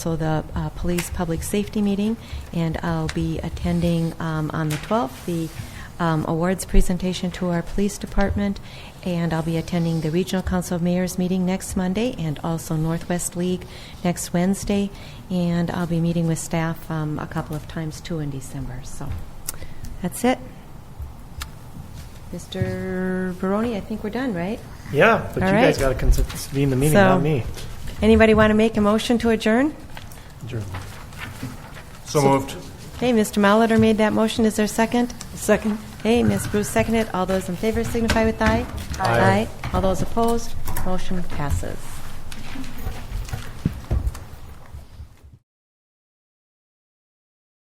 So the uh, police public safety meeting, and I'll be attending um, on the 12th the um, awards presentation to our police department, and I'll be attending the regional council of mayors meeting next Monday, and also Northwest League next Wednesday, and I'll be meeting with staff um, a couple of times too in December. So that's it. Mr. Baroni, I think we're done, right? Yeah, but All you guys right. got to convene the meeting, So- not me. Anybody want to make a motion to adjourn? Adjourn. So moved. Okay, Mr. Malater made that motion. Is there a second? Second. Okay, Ms. Bruce seconded. All those in favor signify with aye. Aye. All those opposed, motion passes.